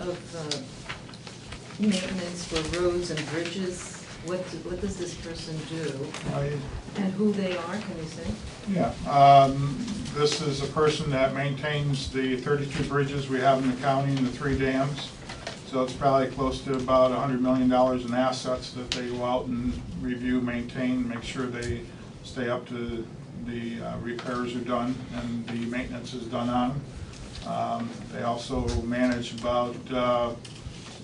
of uh, maintenance for roads and bridges, what, what does this person do? I- And who they are, can you say? Yeah, um, this is a person that maintains the thirty-two bridges we have in the county and the three dams. So it's probably close to about hundred million dollars in assets that they go out and review, maintain, make sure they stay up to the uh, repairs are done and the maintenance is done on. 'em. Um, They also manage about, uh,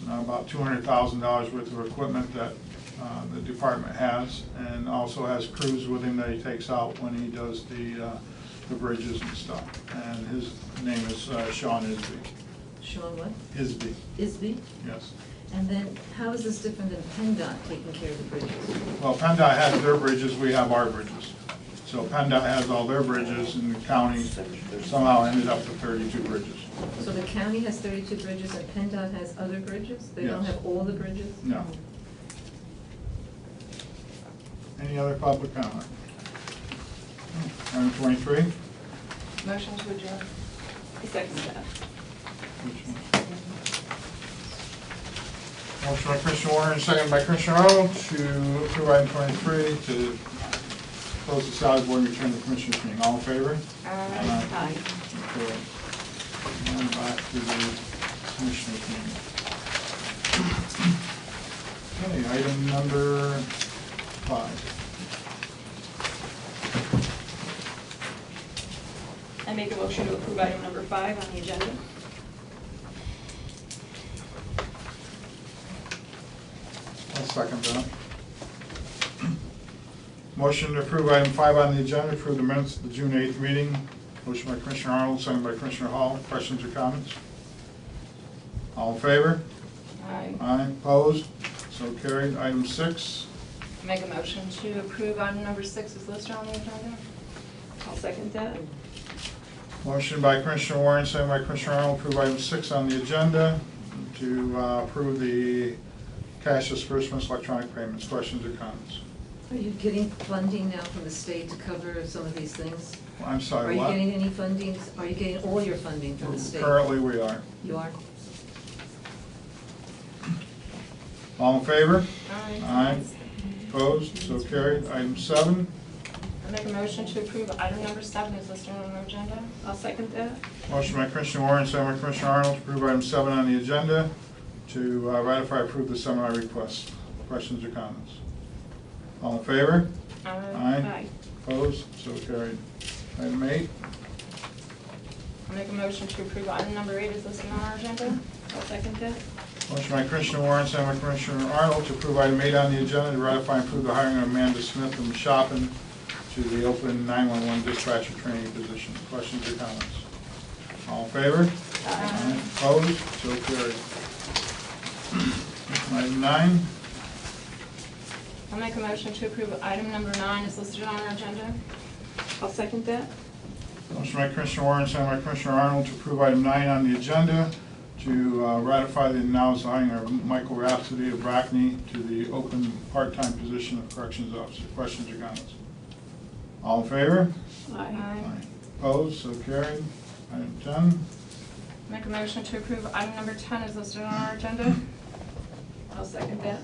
about two hundred thousand dollars worth of equipment that uh, the department has, and also has crews with him that he takes out when he does the, uh, the bridges and stuff. And his name is uh, Sean Isby. Sean what? Isby, Isby? yes. And then, how is this different than PennDOT taking care of the bridges? Well, PennDOT has their bridges, we have our bridges. So PennDOT has all their bridges, and the county somehow ended up with thirty-two bridges. So the county has thirty-two bridges and PennDOT has other bridges? They don't Yes. have all the bridges? No. Any other public comment? Hmm, Item twenty-three? Motion to adjourn. Second that. Motion by Commissioner Warren, second by Commissioner Arnold, to approve item twenty-three, to close the salary board and return to commissioners meeting. All in favor? Aye. Okay. And back to the commissioners meeting. Okay, item number five. I make a motion to approve item number five on the agenda. I'll second that. Motion to approve item five on the agenda, approve the minutes of the June eighth meeting. Motion by Commissioner Arnold, second by Commissioner Hall. Questions or comments? All in favor? Aye. Aye, opposed? So carried. Item six, Make a motion to approve item number six is listed on the agenda. I'll second that. motion by Commissioner Warren, second by Commissioner Arnold, approve item six on the agenda to uh, approve the cash disbursements, electronic payments. Questions or comments? Are you getting funding now from the state to cover some of these things? I'm Are sorry, you what? getting any funding, are you getting all your funding from the state? Currently, we are. You are? All in favor? Aye. Aye. Opposed, so carried. Item seven, I make a motion to approve item number seven is listed on the agenda. I'll second that. motion by Commissioner Warren, second by Commissioner Arnold, to approve item seven on the agenda to uh, ratify approve the seminar request. Questions or comments? All in favor? Aye. Opposed, so carried. Item eight, I make a motion to approve item number eight is listed on our agenda. I'll second that. motion by Commissioner Warren, second by Commissioner Arnold, to approve item eight on the agenda to ratify and approve the hiring of Amanda Smith from Shopin to the open 911 dispatcher training position. Questions or comments? All in favor? Aye. Opposed, so carried. Item nine, I'll make a motion to approve item number nine is listed on our agenda. I'll second that. motion by Commissioner Warren, second by Commissioner Arnold to approve item nine on the agenda to uh, ratify the announced hiring of Michael Rhapsody of Brackney to the open part-time position of corrections officer. Questions or comments? All in favor? Aye. Opposed, so carried. Item ten, Make a motion to approve item number 10 is listed on our agenda. I'll second that.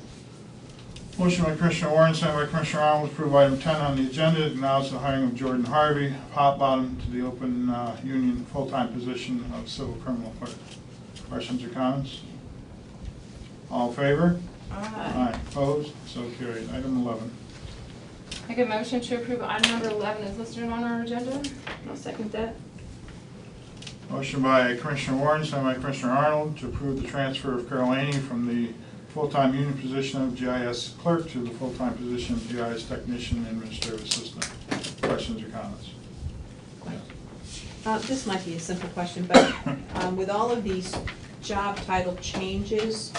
motion by Commissioner Warren, second by Commissioner Arnold to approve item ten on the agenda to announce the hiring of Jordan Harvey, of hot bottom, to the open uh, union full-time position of civil criminal clerk. Questions or comments? All in favor? Aye. Opposed? So carried. Item eleven. Make a motion to approve item number 11 is listed on our agenda. I'll second that. Motion by Commissioner Warren, second by Commissioner Arnold to approve the transfer of Carol Aney from the full-time union position of GIS clerk to the full-time position of GIS technician and administrative assistant. Questions or comments? Uh, This might be a simple question, but um, with all of these job title changes,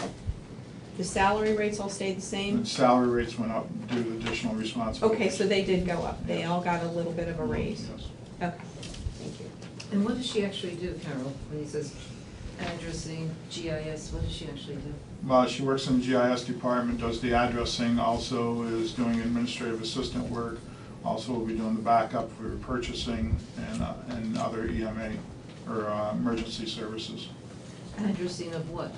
the salary rates all stayed the same? And salary rates went up due to additional responsibilities. Okay, so they did go up. They all got a little bit of a raise. Yes. Okay, thank you. And what does she actually do, Carol, when he says addressing GIS, what does she actually do? Well, she works in the GIS department, does the addressing, also is doing administrative assistant work, also will be doing the backup for purchasing and, E uh, and other EMA or uh, emergency services. Addressing of what?